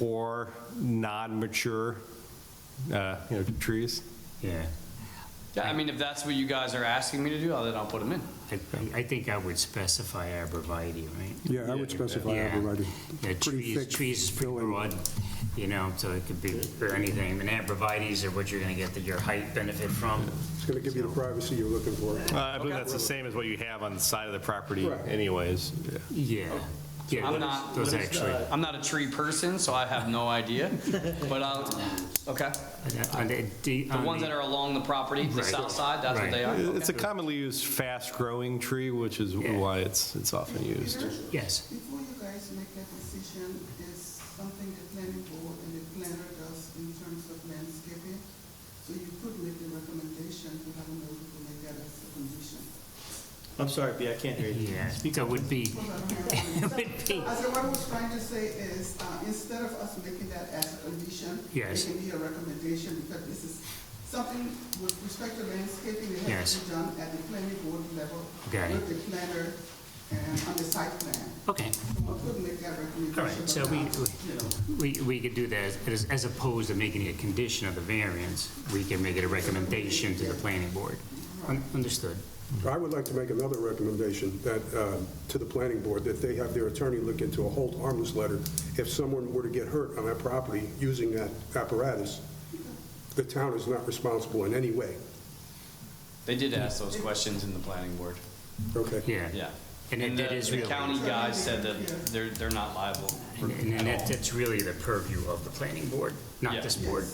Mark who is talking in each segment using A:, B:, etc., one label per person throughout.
A: or non-mature, uh, you know, trees.
B: Yeah,
C: Yeah, I mean, if that's what you guys are asking me to do, then I'll put them in.
B: I, I think I would specify arborvitae, right?
D: Yeah, I would specify
B: Yeah.
D: arborvitae.
B: Yeah,
D: Pretty
B: trees,
D: thick
B: trees is pretty
D: filling.
B: broad, you know, so it could be for anything. And arborvitae's are what you're gonna get the- your height benefit from.
D: It's going to give you the privacy you're looking for.
A: Uh, I believe that's the same as what you have on the side of the property
D: Correct.
A: anyways. Yeah.
B: Yeah.
D: Oh.
B: Yeah,
C: I'm
B: those-
C: not-
B: Those actually,
C: I'm not a tree person, so I have no idea, but I'll, okay.
B: on uh, the, the-
C: The
B: on
C: ones
B: the-
C: that are along the property, the
B: Right.
C: south side, that's
B: Right.
C: what they are?
A: Uh, It's a
C: Okay.
A: commonly used, fast-growing tree, which is
B: Yeah.
A: why it's, it's often used.
B: Yes.
E: Before you guys make that decision, is something the planning board and the planner does in terms of landscaping? So you could make a recommendation to have a note to make that as a condition.
F: I'm sorry, B, I can't hear you.
B: Yeah, so it would be,
E: Hold on, hold
B: it
E: on.
B: would be,
E: I said, what I was trying to say is, uh, instead of us making that as a condition,
B: Yes.
E: it can be a recommendation, because this is something with respect to landscaping, it
B: Yes.
E: has to be done at the planning board level
B: Okay.
E: with the planner and on the site plan.
B: okay.
E: We could make that recommendation.
B: All right, so
E: but
B: we-
E: not,
B: we-
E: You
B: We,
E: know.
B: we could do that as, as opposed to making it a condition of the variance. We can make it a recommendation to the planning board. Un- Understood.
D: I would like to make another recommendation that, uh, to the planning board, that they have their attorney look into a hold harmless letter. If someone were to get hurt on that property using that apparatus, the town is not responsible in any way.
C: They did ask those questions in the planning board,
D: Okay?
B: Yeah.
C: yeah.
B: And it-
C: the-
B: that is
C: The
B: really-
C: county guys said that they're, they're not liable for
B: And and
C: at
B: that,
C: all.
B: that's really the purview of the planning board, not
C: Yeah.
B: this board.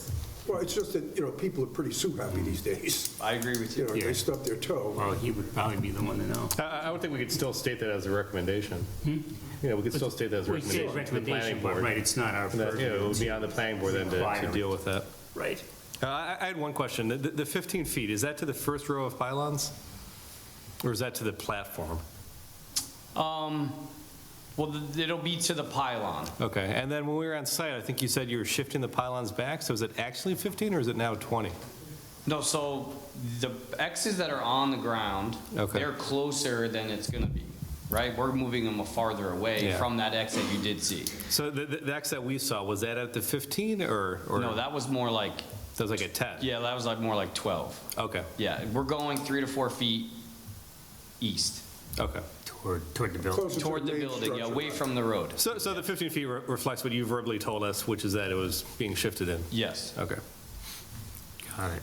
D: Well, it's just that, you know, people are pretty sue happy these days.
C: I agree with
D: You
C: you.
D: know, they
B: Yeah.
D: stub their toe.
B: Well, he would probably be the one to know.
A: I- I, I would think we could still state that as a recommendation. You know, we could still state that as a
B: Hmm? We say
A: recommendation to the planning
B: recommendation, but
A: board.
B: right, it's not our
A: And that, You know, it would be
B: purview.
A: on the planning board then to- to
B: Requirement.
A: deal with that.
B: Right.
A: Uh, I I had one question. The- The the 15 feet, is that to the first row of pylons? Or is that to the platform?
C: Um, well, th- it'll be to the pylon.
A: Okay, and then when we were on site, I think you said you were shifting the pylons back, so is it actually 15 or is it now 20?
C: No, so the X's that are on the ground,
A: Okay.
C: they're closer than it's gonna be, right? We're moving them farther away
A: Yeah.
C: from that X that you did see.
A: So the- the the X that we saw, was that at the 15 or? or-
C: No, that was more like,
A: That was like a 10?
C: yeah, that was like more like 12.
A: Okay,
C: Yeah, we're going three to four feet east
A: okay.
B: Toward, toward the building.
D: Closer to
C: toward the
D: main
C: building, yeah,
D: structure.
C: away from the road.
A: So so the 15 feet re- reflects what you verbally told us, which is that it was being shifted in?
C: Yes.
A: Okay.
B: Got it.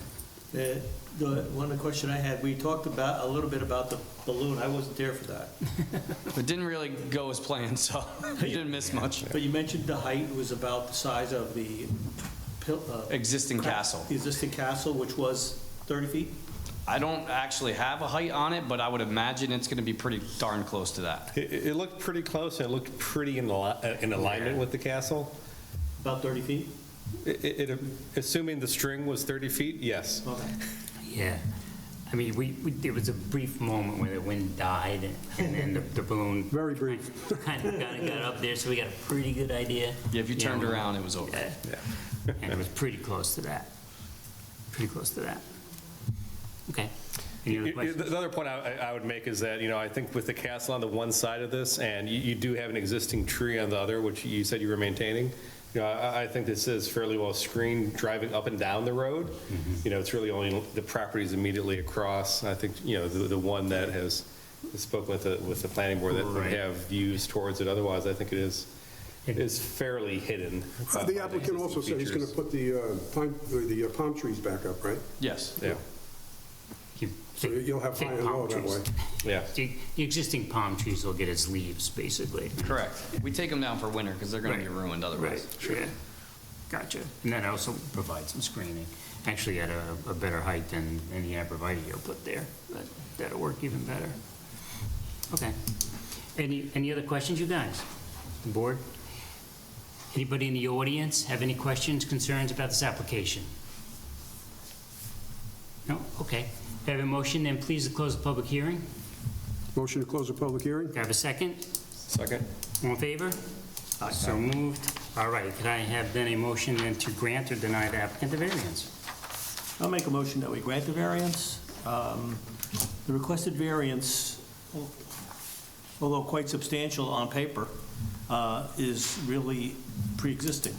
F: The, the, one question I had, we talked about, a little bit about the balloon, I wasn't there for that.
C: It didn't really go as planned, so we didn't miss much.
F: But you mentioned the height was about the size of the pil- uh,
C: Existing castle.
F: the existing castle, which was 30 feet?
C: I don't actually have a height on it, but I would imagine it's gonna be pretty darn close to that.
A: It it looked pretty close, and it looked pretty in al- in alignment with the castle.
F: About 30 feet?
A: It- It, it- assuming the string was 30 feet, yes.
F: Okay.
B: Yeah. I mean, we, we- there was a brief moment where the wind died and then the the balloon
D: Very brief.
B: kind of got got up there, so we got a pretty good idea.
C: Yeah, if you turned
B: know,
C: around, it was over.
B: Yeah. And it was pretty close to that. Pretty close to that. Okay. Any
A: You-
B: other
A: you-
B: questions?
A: The other point I I- I would make is that, you know, I think with the castle on the one side of this, and you- you do have an existing tree on the other, which you said you were maintaining, you know, I I think this is fairly well screened driving up and down the road. You know, it's really only the properties immediately across. I think, you know, the the one that has spoken with the, with the planning board that would
B: Right.
A: have views towards it. Otherwise, I think it is, it is fairly hidden. by- by
D: Uh, The applicant also said he's going to
A: existing
D: put the uh, pine, the uh, palm trees back up, right?
C: Yes.
A: features.
B: You
D: So
B: think-
D: you'll have
B: think
D: high and
B: palm
D: low that
B: trees.
D: way.
A: Yeah, yeah.
B: The the existing palm trees will get its leaves, basically.
C: Correct. We take them down for winter because they're going to be
B: Right.
C: ruined otherwise.
B: yeah. Gotcha. And that also provides some screening, actually at a, a better height than any arborvitae you'll put there, but that'll work even better. Okay. Any, any other questions, you guys? The board? Anybody in the audience have any questions, concerns about this application? No? Okay. If you have a motion, then please close the public hearing.
D: Motion to close the public hearing?
B: Do I have a second?
A: Second?
B: All in favor? So moved. All right, could I have then a motion then to grant or deny the applicant the variance?
F: I'll make a motion that we grant the variance. Um, The requested variance, al- although quite substantial on paper, uh, is really pre-existing.